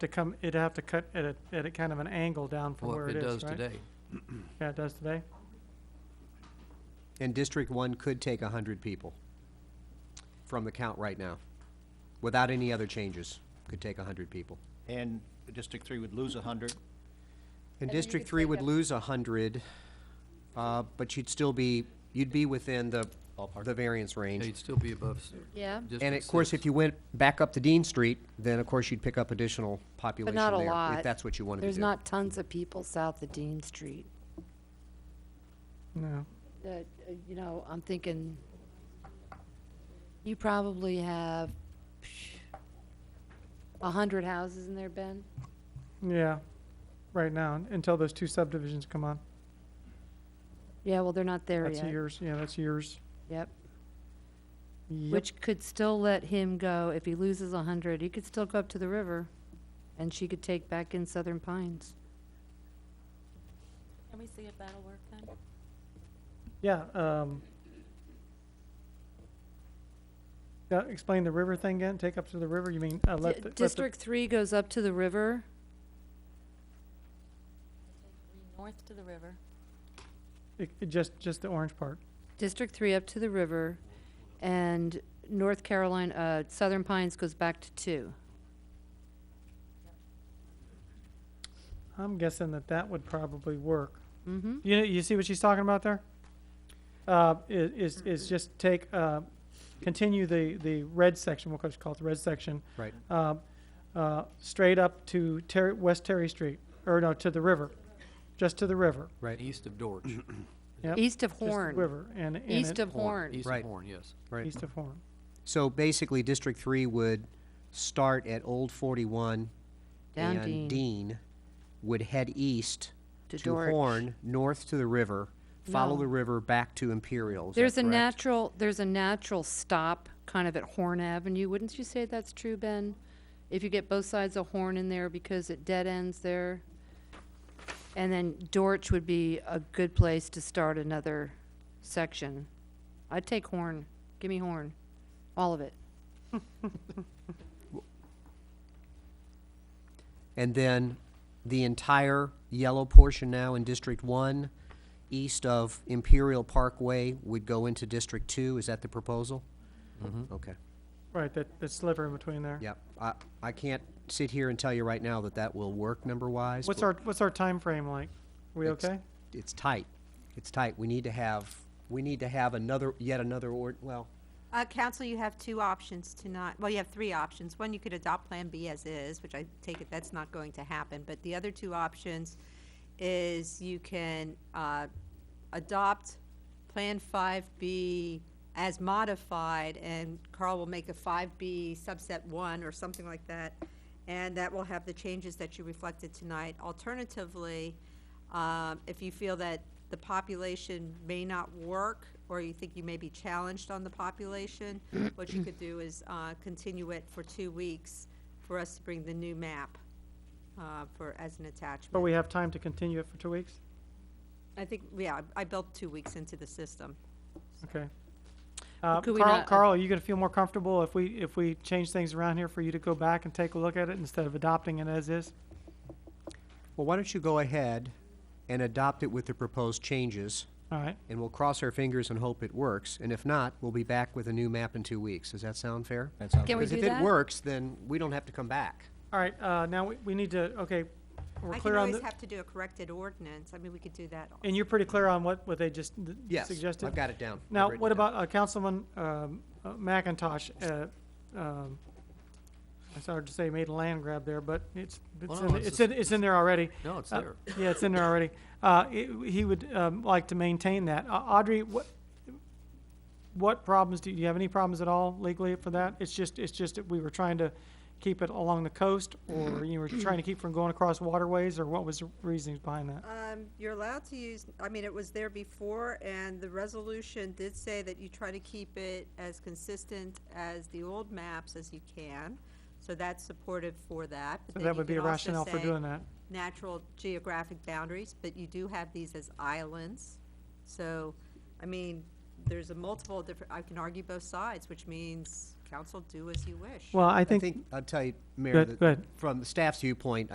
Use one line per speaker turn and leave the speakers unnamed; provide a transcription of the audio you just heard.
to come, it'd have to cut at a, at a kind of an angle down from
Well,
where
if
it
it
is,
does
right?
today.
Yeah, it does today?
And District One could take hundred people from the count right now, without any other changes, could take hundred people.
And District Three would lose a hundred.
And
then you
District
could
Three
take
would
up-
lose hundred, uh, but you'd still be, you'd be within the,
Ballpark.
the variance
Yeah,
range.
You'd still be above s-
Yeah,
And
District
of course,
Six.
if you went back up to Dean Street, then of course you'd pick up additional
but
population
not a
there,
lot.
If that's what you wanted to do.
There's not tons of people south of Dean Street.
No.
That, uh, you know, I'm thinking, you probably have a hundred houses in there, Ben?
Yeah, right now, un- until those two subdivisions come on.
Yeah, well, they're not there
That's
yet.
yours, yeah, that's yours.
Yep,
Yep.
which could still let him go, if he loses a hundred, he could still go up to the river, and she could take back in Southern Pines.
Can we see if that'll work then?
Yeah, um. Yeah, explain the river thing again, take up to the river, you mean, uh, let
Di-
the- let the-
District three goes up to the river,
North to the river.
it- it Just, just the orange part.
District three up to the river, and North Carolina, uh, Southern Pines goes back to two.
I'm guessing that that would probably work.
Mm-hmm.
You, know- you see what she's talking about there? Uh, i- is, is just take, uh, continue the, the red section, we'll just call it the red section,
Right.
uh, uh, straight up to Terry, West Terry Street, or no, to the river, just to the river.
Right.
East of Dorch.
Yep,
East of
just the
Horn,
River, and, and.
east
it-
of Horn.
East
Right.
of Horn, yes.
Right.
East of Horn.
So basically, District Three would start at Old Forty-One.
Down Dean.
And Dean would head east
To
to
Dorch.
Horn, north to the river, follow
No.
the river back to Imperial. Is that
There's a
correct?
natural, there's a natural stop kind of at Horn Avenue. Wouldn't you say that's true, Ben? If you get both sides of Horn in there because it dead ends there? And then Dortch would be a good place to start another section. I'd take Horn. Give me Horn. All of it.
And then the entire yellow portion now in District One, east of Imperial Parkway, would go into District Two. Is that the proposal? Mm-hmm. Okay,
Right, that, that sliver in between there.
yep. I, I can't sit here and tell you right now that that will work number-wise.
What's
but
our, what's our time frame like? We
It's-
okay?
It's tight. It's tight. We need to have, we need to have another, yet another ord, well,
Uh, council, you have two options to not, well, you have three options. One, you could adopt Plan B as is, which I take it that's not going to happen. But the other two options is you can, uh, adopt Plan five B as modified, and Carl will make a five B subset one or something like that. And that will have the changes that you reflected tonight. Alternatively, um, If you feel that the population may not work, or you think you may be challenged on the population, what you could do is uh, continue it for two weeks for us to bring the new map uh, for, as an
But
attachment.
we have time to continue it for two weeks?
I think, yeah, I I built two weeks into the system.
Okay. Uh,
could we
Carl,
not-
Carl, are you gonna feel more comfortable if we, if we change things around here for you to go back and take a look at it instead of adopting it as is?
Well, why don't you go ahead and adopt it with the proposed changes,
All right,
and we'll cross our fingers and hope it works, and if not, we'll be back with a new map in two weeks. Does that sound fair?
That sounds
Can we
Because
do
if
that?
it works, then we don't have to come back.
all right, uh, now we, we need to, okay, we're
I can
clear on
always
the,
have to do a corrected ordinance. I mean, we could do that.
and you're pretty clear on what, what they just th-
Yes,
suggested?
I've got it down. I've
Now,
written
what
it down.
about uh, Councilman um, uh, McIntosh? uh, um, I started to say made a land grab there, but it's, it's
no,
in-
it's
it's in, it's in there already.
No, it's
Uh,
there.
Yeah, it's in there already. Uh, it- He would um, like to maintain that. Uh, Audrey, what, what problems, do you have any problems at all legally for that? It's just, it's just that we were trying to keep it along the coast,
Mm-hmm.
or you were trying to keep from going across waterways, or what was the reasoning behind that?
Um, You're allowed to use, I mean, it was there before, and the resolution did say that you try to keep it as consistent as the old maps as you can, so that's supportive for that.
So
but then
that
you
would be
can
a
also
rationale for
say
doing that.
Natural geographic boundaries, but you do have these as islands, so, I mean, there's a multiple different, I can argue both sides, which means council, do as you wish.
Well, I
I
think
think, I'll tell you,
Go
Mayor,
ahead, go
that
ahead.
from the staff's viewpoint,